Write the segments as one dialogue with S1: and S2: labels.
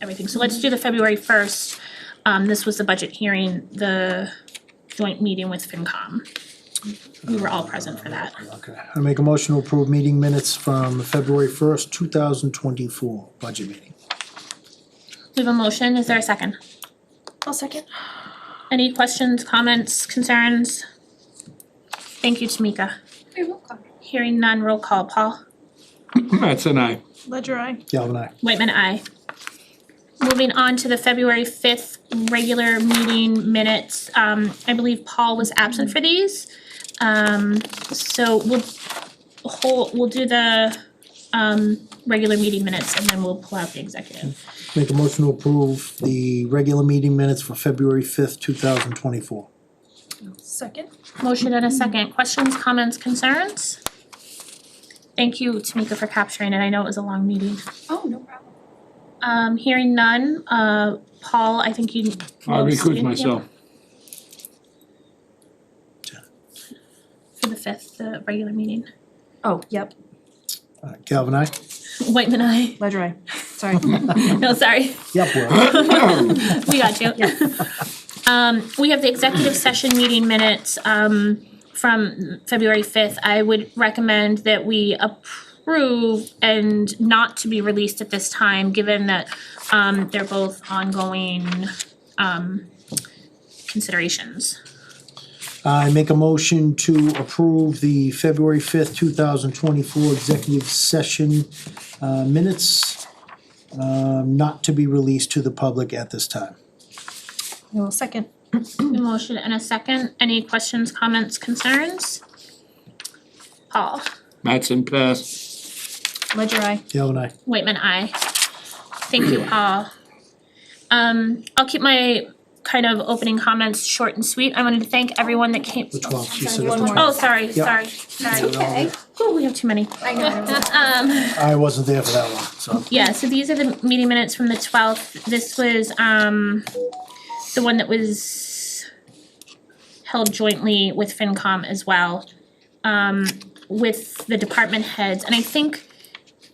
S1: everything. So let's do the February first. Um, this was the budget hearing, the joint meeting with FinCom. We were all present for that.
S2: Okay, I make a motion to approve meeting minutes from February first, two thousand twenty-four, budget meeting.
S1: We have a motion, is there a second?
S3: I'll second.
S1: Any questions, comments, concerns? Thank you, Tamika.
S3: You're welcome.
S1: Hearing none, roll call, Paul.
S4: That's an aye.
S3: Ledger I.
S2: Galvin I.
S1: Whitman, aye. Moving on to the February fifth regular meeting minutes, um, I believe Paul was absent for these. Um, so we'll hold, we'll do the, um, regular meeting minutes and then we'll pull out the executive.
S2: Make a motion to approve the regular meeting minutes for February fifth, two thousand twenty-four.
S3: Second.
S1: Motion and a second, questions, comments, concerns? Thank you, Tamika, for capturing it, I know it was a long meeting.
S3: Oh, no problem.
S1: Um, hearing none, uh, Paul, I think you.
S4: I recuse
S1: Yeah,
S4: myself.
S1: For the fifth, the regular meeting.
S3: Oh, yep.
S2: Uh, Galvin I.
S1: Whitman, I.
S3: Ledger I. Sorry.
S1: No, sorry,
S2: Yep, well,
S1: we got you. Um, we have the executive session meeting minutes, um, from February fifth. I would recommend that we approve and not to be released at this time, given that, um, they're both ongoing, um, considerations.
S2: I make a motion to approve the February fifth, two thousand twenty-four executive session, uh, minutes, um, not to be released to the public at this time.
S3: I will second.
S1: A Motion and a second. Any questions, comments, concerns? Paul,
S4: Mattson pass.
S3: Ledger I.
S2: Galvin I.
S1: Waitman, I. Thank you all. Um, I'll keep my kind of opening comments short and sweet. I wanted to thank everyone that came.
S2: The twelfth, you said
S3: One
S2: the
S3: more.
S1: Oh,
S2: twelfth.
S1: sorry,
S2: Yeah.
S1: sorry, sorry.
S3: Okay.
S1: Oh, we have too many.
S3: I know.
S1: Um,
S2: I wasn't there for that one, so.
S1: yeah, so these are the meeting minutes from the twelfth. This was, um, the one that was held jointly with FinCom as well, um, with the department heads. And I think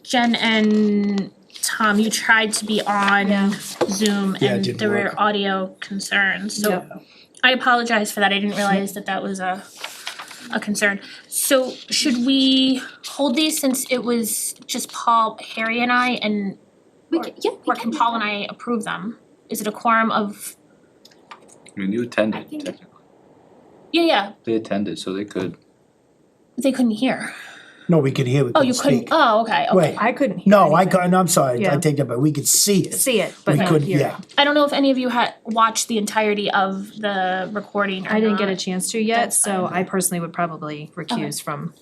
S1: Jen and Tom, you tried to be
S3: Yeah.
S1: on Zoom
S2: Yeah, it
S1: and
S2: didn't
S1: there were
S2: work.
S1: audio concerns, so
S3: Yep.
S1: I apologize for that, I didn't realize that that was a a concern. So should we hold these since it was just Paul, Harry and I and
S3: We can, yeah, we
S1: or can
S3: can.
S1: Paul and I approve them? Is it a quorum of,
S5: I mean, you attended technically.
S1: yeah, yeah,
S5: They attended, so they could.
S1: they couldn't hear.
S2: No, we could hear, we
S1: Oh, you
S2: couldn't
S1: couldn't,
S2: speak.
S1: oh, okay, okay.
S2: Wait,
S3: I couldn't hear.
S2: no, I
S3: anything.
S2: couldn't, I'm sorry, I
S3: Yeah.
S2: take that back, we could see it.
S3: See it, but
S2: We
S3: not
S2: could,
S3: hear
S2: yeah.
S3: it.
S1: I don't know if any of you had watched the entirety of the recording or
S3: I didn't get a
S1: not.
S3: chance to yet,
S1: That's
S3: so I personally would probably recuse from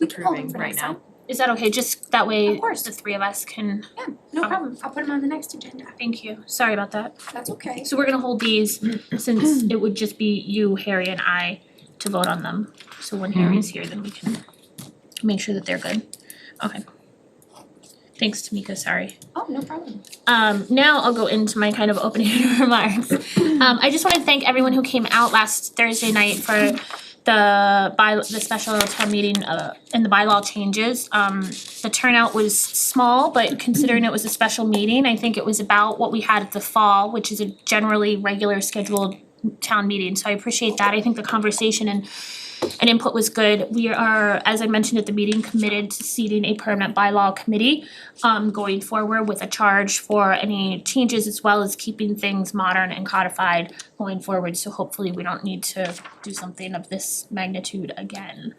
S6: We can hold them
S3: approving
S6: for
S3: right
S6: next
S3: now.
S6: time.
S1: Is that okay, just that way
S6: Of course.
S1: the three of us can,
S6: Yeah, no
S1: Oh.
S6: problem. I'll put them on the next agenda.
S1: thank you, sorry about that.
S6: That's okay.
S1: So we're gonna hold these since it would just be you, Harry and I to vote on them. So when Harry's here, then we can make sure that they're good. Okay. Thanks, Tamika, sorry.
S6: Oh, no problem.
S1: Um, now I'll go into my kind of opening remarks. Um, I just wanna thank everyone who came out last Thursday night for the by, the special town meeting, uh, and the bylaw changes. Um, the turnout was small, but considering it was a special meeting, I think it was about what we had at the fall, which is a generally regular scheduled town meeting, so I appreciate that, I think the conversation and and input was good. We are, as I mentioned at the meeting, committed to seating a permanent bylaw committee um going forward with a charge for any changes as well as keeping things modern and codified going forward, so hopefully we don't need to do something of this magnitude again.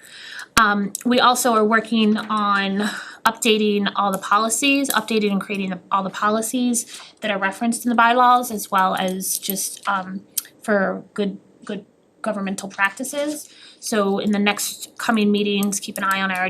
S1: Um, we also are working on updating all the policies, updating and creating the- all the policies that are referenced in the bylaws as well as just um for good good governmental practices. So in the next coming meetings, keep an eye on our